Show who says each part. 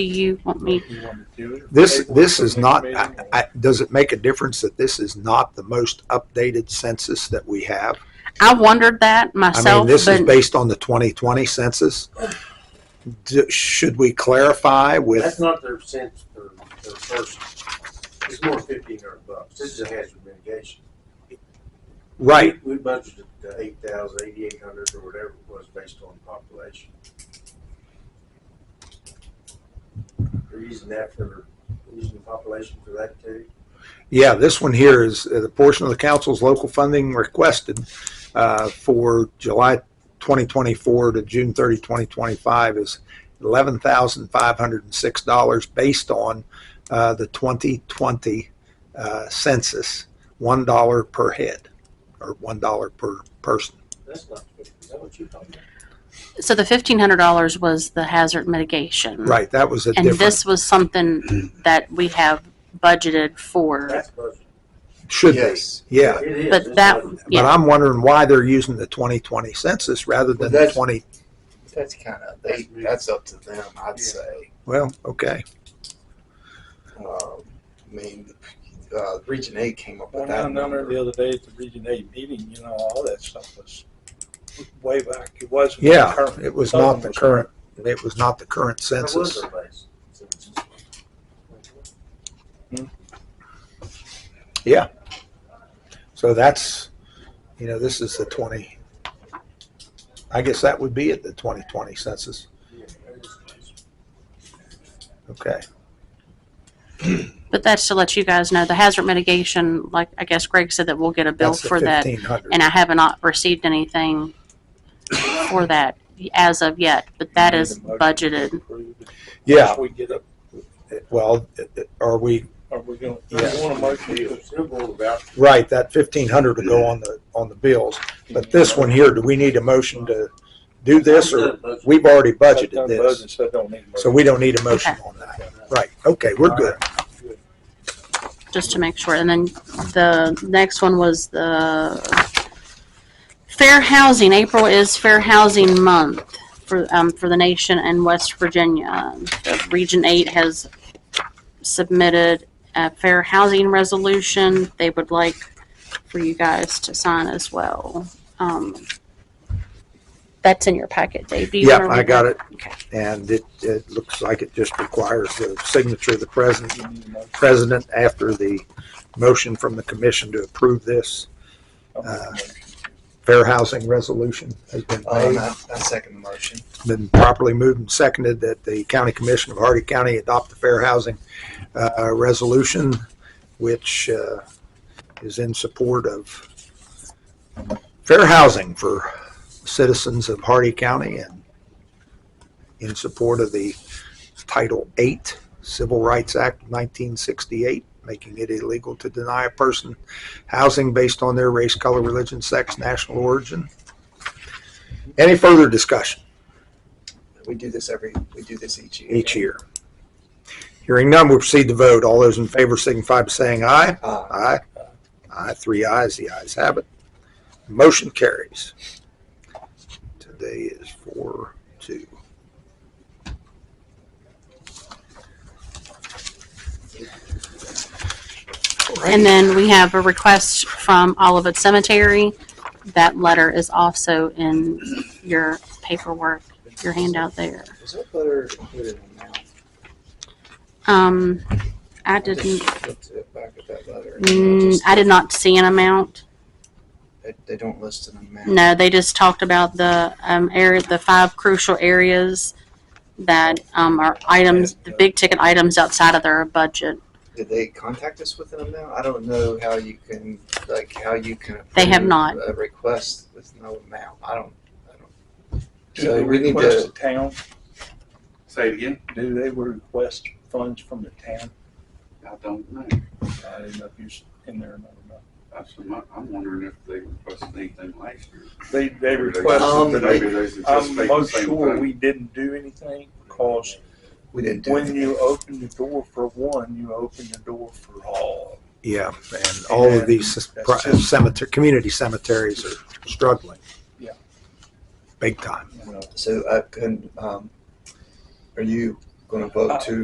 Speaker 1: Do you want me?
Speaker 2: This, this is not, I, I, does it make a difference that this is not the most updated census that we have?
Speaker 1: I wondered that
Speaker 2: I
Speaker 1: myself,
Speaker 2: mean, this is
Speaker 1: but
Speaker 2: based on the 2020 census. D- Should we clarify
Speaker 3: That's
Speaker 2: with,
Speaker 3: not their cents per, per person. It's more fifteen hundred bucks. This is a hazard mitigation.
Speaker 2: right,
Speaker 3: We budgeted the eight thousand, eighty-eight hundred or whatever it was based on population. They're using that for, their- they're using the population for that too.
Speaker 2: yeah, this one here is uh, the portion of the council's local funding requested uh, for July 2024 to June 30, 2025 is $11,506 based on uh, the 2020 uh, census, $1 per head or $1 per person.
Speaker 3: That's not, is that what you're talking
Speaker 1: so the fifteen hundred dollars was the hazard mitigation.
Speaker 2: Right, that was a
Speaker 1: Mm-hmm. And
Speaker 2: different,
Speaker 1: this was something that we have budgeted
Speaker 3: about?
Speaker 1: for.
Speaker 3: That's budget.
Speaker 2: should be, yeah.
Speaker 3: It is.
Speaker 1: But
Speaker 3: It's
Speaker 1: that,
Speaker 3: budget.
Speaker 2: But
Speaker 1: yeah,
Speaker 2: I'm wondering why they're using the 2020 census rather than the
Speaker 4: That's-
Speaker 2: 20,
Speaker 4: That's kind of they, that's up to them, I'd say.
Speaker 2: well, okay.
Speaker 4: Um, I mean, uh, Region Eight came up with
Speaker 5: When I
Speaker 4: that
Speaker 5: number
Speaker 4: number.
Speaker 5: the other day at the Region Eight meeting, you know, all that stuff was way back. It wasn't.
Speaker 2: Yeah,
Speaker 5: current.
Speaker 2: it was
Speaker 5: Southern
Speaker 2: not the current, it was not the current
Speaker 3: That was
Speaker 2: census.
Speaker 3: their base.
Speaker 2: So that's, you know, this is the 20, I guess that would be at the 2020 census.
Speaker 3: Yeah, that is the base.
Speaker 2: Okay.
Speaker 1: but that's to let you guys know, the hazard mitigation, like I guess Greg said that we'll get a bill
Speaker 2: That's the
Speaker 1: for that.
Speaker 2: 1500.
Speaker 1: And I have not received anything for that as of yet, but that is budgeted.
Speaker 2: Yeah,
Speaker 5: Once we get up,
Speaker 2: well, are we,
Speaker 5: are we gonna,
Speaker 2: Yeah.
Speaker 5: you wanna motion to
Speaker 3: Still going about
Speaker 2: right, that 1500 would go on the, on the bills. But this one here, do we need a motion to do this or we've already budgeted
Speaker 5: Done
Speaker 2: this?
Speaker 5: budget, So don't need.
Speaker 2: So we don't need a motion on that. Right, okay, we're good.
Speaker 1: just to make sure. And then the next one was the fair housing. April is fair housing month for, um, for the nation and West Virginia. The Region Eight has submitted a fair housing resolution they would like for you guys to sign as well. Um, That's in your packet, Dave. Do you
Speaker 2: Yep,
Speaker 1: wanna
Speaker 2: I
Speaker 1: read
Speaker 2: got
Speaker 1: that?
Speaker 2: it.
Speaker 1: Okay.
Speaker 2: And it, it looks like it just requires the signature of the president,
Speaker 5: You need a motion.
Speaker 2: president after the motion from the commission to approve this
Speaker 5: I'll make a
Speaker 2: Uh,
Speaker 5: motion.
Speaker 2: fair housing resolution has been
Speaker 4: Oh, and
Speaker 2: made.
Speaker 4: I, I second the motion.
Speaker 2: Been properly moved and seconded that the county commission of Hardy County adopt the fair housing, uh, resolution, which, uh, is in support of fair housing for citizens of Hardy County and in support of the Title VIII Civil Rights Act of 1968, making it illegal to deny a person housing based on their race, color, religion, sex, national origin. Any further discussion
Speaker 4: We do this every, we do this each year.
Speaker 2: each year? Hearing none, we proceed to vote. All those in favor signify by saying aye.
Speaker 4: Uh,
Speaker 2: Aye. Aye, three ayes, the ayes have it. Motion carries. Today is four, two.
Speaker 1: And then we have a request from Olivet Cemetery. That letter is also in your paperwork, your handout there.
Speaker 4: was that letter included in that?
Speaker 1: Um, I didn't,
Speaker 4: just looked it back at that letter.
Speaker 1: mm,
Speaker 4: Just-
Speaker 1: I did not see an amount.
Speaker 4: They, they don't list an amount.
Speaker 1: No, they just talked about the, um, area, the five crucial areas that, um, are items, the big ticket items outside of their budget.
Speaker 4: Did they contact us with an amount? I don't know how you can, like, how you can.
Speaker 1: They have
Speaker 4: approve
Speaker 1: not.
Speaker 4: A request with no amount. I don't, I don't.
Speaker 5: Do
Speaker 4: So
Speaker 5: they
Speaker 4: we need
Speaker 5: request
Speaker 4: to,
Speaker 5: the town?
Speaker 6: Say it again.
Speaker 5: Do they request funds from the town?
Speaker 6: I don't know.
Speaker 5: I didn't know if you was in there or not.
Speaker 6: That's what my- I'm wondering if they requested anything last year.
Speaker 5: They, they
Speaker 6: Maybe they-
Speaker 4: Um,
Speaker 5: requested, that
Speaker 6: Maybe they
Speaker 5: they- I'm
Speaker 6: anticipate the
Speaker 5: most
Speaker 6: same
Speaker 5: sure
Speaker 6: thing.
Speaker 5: we didn't do anything because
Speaker 4: we didn't do
Speaker 5: When
Speaker 4: it.
Speaker 5: you open the door for one, you open the door for all.
Speaker 2: Yeah, and all of these
Speaker 5: And that's just-
Speaker 2: cemetery, community cemeteries are struggling.
Speaker 5: Yeah.
Speaker 2: Big time.
Speaker 5: You know,
Speaker 4: So I can, um, uh, are you going to vote to